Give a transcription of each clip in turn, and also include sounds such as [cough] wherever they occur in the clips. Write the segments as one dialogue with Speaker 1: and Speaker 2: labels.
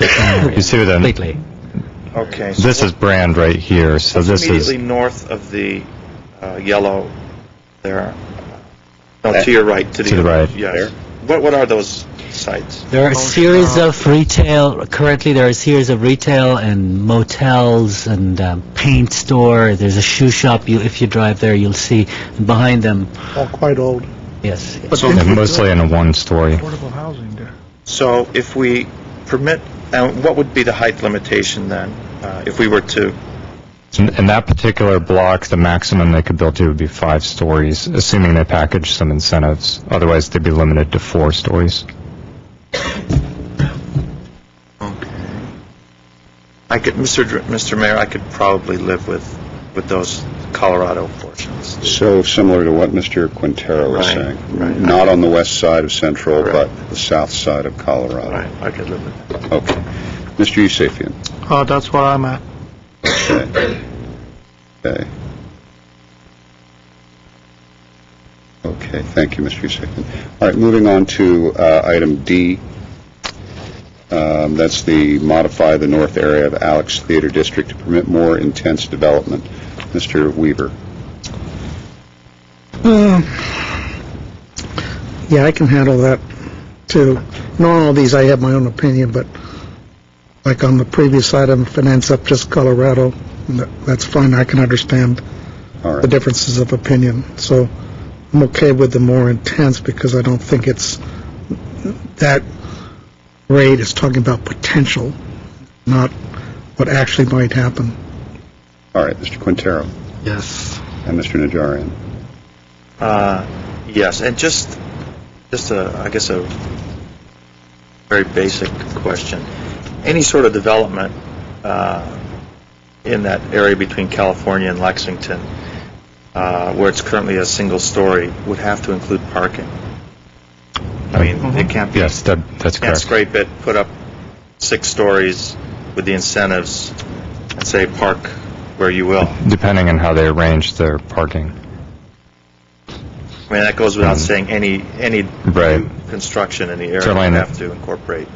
Speaker 1: You see what I'm-
Speaker 2: Completely.
Speaker 3: Okay. so
Speaker 1: This is Brand right here, so
Speaker 3: what's
Speaker 1: this is,
Speaker 3: Immediately north of the uh, yellow there. No, to your right, to the.
Speaker 1: To the right.
Speaker 3: Yes. What, what are those sites?
Speaker 2: There are a series of retail, currently there are a series of retail and motels and um, paint store. There's a shoe shop. You, If you drive there, you'll see behind them,
Speaker 4: all quite old.
Speaker 2: yes.
Speaker 1: yeah, mostly in a one-story.
Speaker 4: Affordable housing there.
Speaker 3: So if we permit, and what would be the height limitation then? uh, If we were to,
Speaker 1: In in that particular block, the maximum they could build to would be five stories, assuming they package some incentives. Otherwise, they'd be limited to four stories.
Speaker 3: I could, Mr. Dr- Mr. Mayor, I could probably live with, with those Colorado portions.
Speaker 5: So similar to what Mr. Quintero was
Speaker 3: Right,
Speaker 5: saying.
Speaker 3: right.
Speaker 5: Not on the west side of Central,
Speaker 3: Correct.
Speaker 5: but the south side of Colorado.
Speaker 3: Right, I could live with that.
Speaker 5: Okay. Mr. Yusefian?
Speaker 4: Oh, that's where I'm at.
Speaker 5: Okay. Okay, thank you, Mr. Yusefian. All right, moving on to uh, item D. Um, That's the modify the north area of Alex Theater District to permit more intense development. Mr. Weaver?
Speaker 6: Um, Yeah, I can handle that, too. And on all these, I have my own opinion, but like on the previous item, finance up just Colorado, tha- that's fine, I can understand
Speaker 5: All right.
Speaker 6: the differences of opinion. So I'm okay with the more intense, because I don't think it's, that rate is talking about potential, not what actually might happen.
Speaker 5: All right, Mr. Quintero
Speaker 2: Yes.
Speaker 5: and Mr. Najarian.
Speaker 3: Uh, Yes, and just, just a, I guess a very basic question. Any sort of development uh, in that area between California and Lexington, uh, where it's currently a single story, would have to include parking. I mean, it can't
Speaker 1: Mm-hmm.
Speaker 3: be,
Speaker 1: Yes, that, that's
Speaker 3: can't
Speaker 1: correct.
Speaker 3: scrape it, put up six stories with the incentives, and say, park where you will.
Speaker 1: Depending on how they arrange their parking.
Speaker 3: I mean, that goes without
Speaker 1: Mm.
Speaker 3: saying, any, any
Speaker 1: Right.
Speaker 3: new construction in the area
Speaker 1: Certainly
Speaker 3: would
Speaker 1: not.
Speaker 3: have to incorporate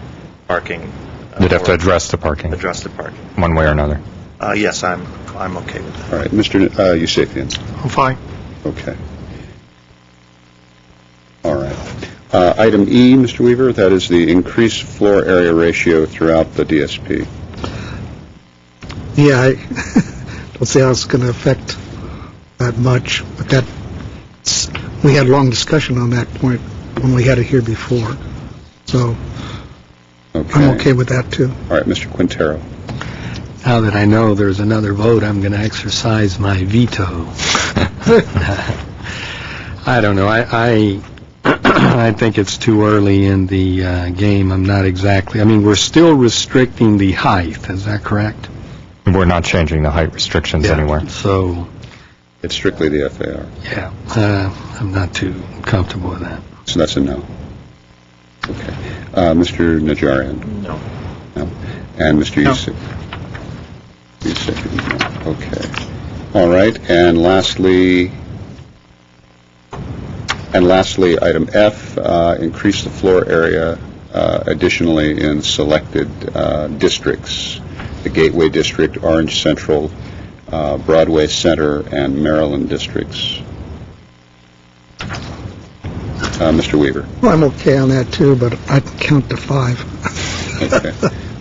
Speaker 3: parking. uh,
Speaker 1: They'd have to
Speaker 3: or
Speaker 1: address the parking,
Speaker 3: Address the parking.
Speaker 1: one way or another.
Speaker 3: Uh, yes, I'm, I'm okay with that.
Speaker 5: All right, Mr. N- uh, Yusefian?
Speaker 4: I'm fine.
Speaker 5: Okay. All right. Uh, Item E, Mr. Weaver, that is the increased floor area ratio throughout the DSP.
Speaker 6: Yeah, I [laughs] don't see how it's going to affect that much, but that, we had a long discussion on that point when we had it here before, so I'm okay with that, too.
Speaker 5: All right, Mr. Quintero.
Speaker 7: Now that I know there's another vote, I'm going to exercise my veto. [laughs] I don't know. I, I, [clears throat] I think it's too early in the uh, game. I'm not exactly, I mean, we're still restricting the height, is that correct?
Speaker 1: We're not changing the height restrictions anywhere.
Speaker 7: So,
Speaker 5: It's strictly the FAR,
Speaker 7: yeah, uh, I'm not too comfortable with that.
Speaker 5: so that's a no. Okay. Uh, Mr. Najarian
Speaker 3: No.
Speaker 5: and Mr. Yusef. Yusefian, no. okay. All right, and lastly, and lastly, item F, uh, increase the floor area uh, additionally in selected uh, districts, the Gateway District, Orange Central, uh, Broadway Center, and Maryland districts. Uh, Mr.
Speaker 7: [laughs]
Speaker 5: Weaver?
Speaker 6: Well, I'm okay on that, too, but I'd count to five.
Speaker 5: Okay.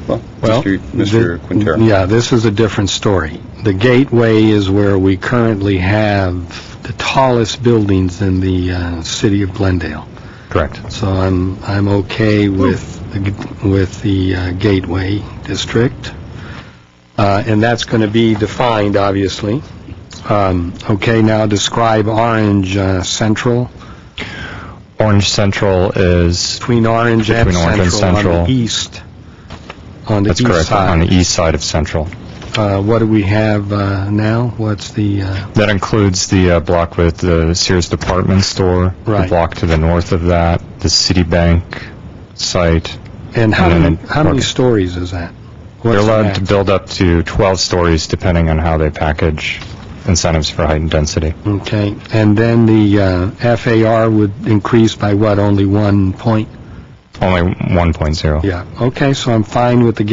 Speaker 5: Well,
Speaker 7: Well,
Speaker 5: Mr. Mr.
Speaker 7: the-
Speaker 5: Quintero?
Speaker 7: Yeah, this is a different story. The gateway is where we currently have the tallest buildings in the uh, city of Glendale.
Speaker 1: Correct.
Speaker 7: So I'm, I'm okay with, the g- with the uh, Gateway District, Uh, and that's going to be defined, obviously. Um, Okay, now describe Orange uh, Central,
Speaker 1: Orange Central is,
Speaker 7: between Orange and
Speaker 1: Between Orange and
Speaker 7: Central on
Speaker 1: Central.
Speaker 7: the east, on the
Speaker 1: that's
Speaker 7: east
Speaker 1: correct, on the
Speaker 7: side.
Speaker 1: east side of Central.
Speaker 7: Uh, What do we have uh, now? What's the, uh,
Speaker 1: That includes the uh, block with the Sears Department Store, the
Speaker 7: Right.
Speaker 1: block to the north of that, the Citibank site.
Speaker 7: and how
Speaker 1: And then
Speaker 7: many,
Speaker 1: it-
Speaker 7: how many
Speaker 1: okay.
Speaker 7: stories is that?
Speaker 1: They're
Speaker 7: What's the
Speaker 1: allowed
Speaker 7: max?
Speaker 1: to build up to 12 stories depending on how they package incentives for height and density.
Speaker 7: Okay, and then the uh, FAR would increase by what, only one point?
Speaker 1: Only 1.0.
Speaker 7: Yeah, okay, so I'm fine with the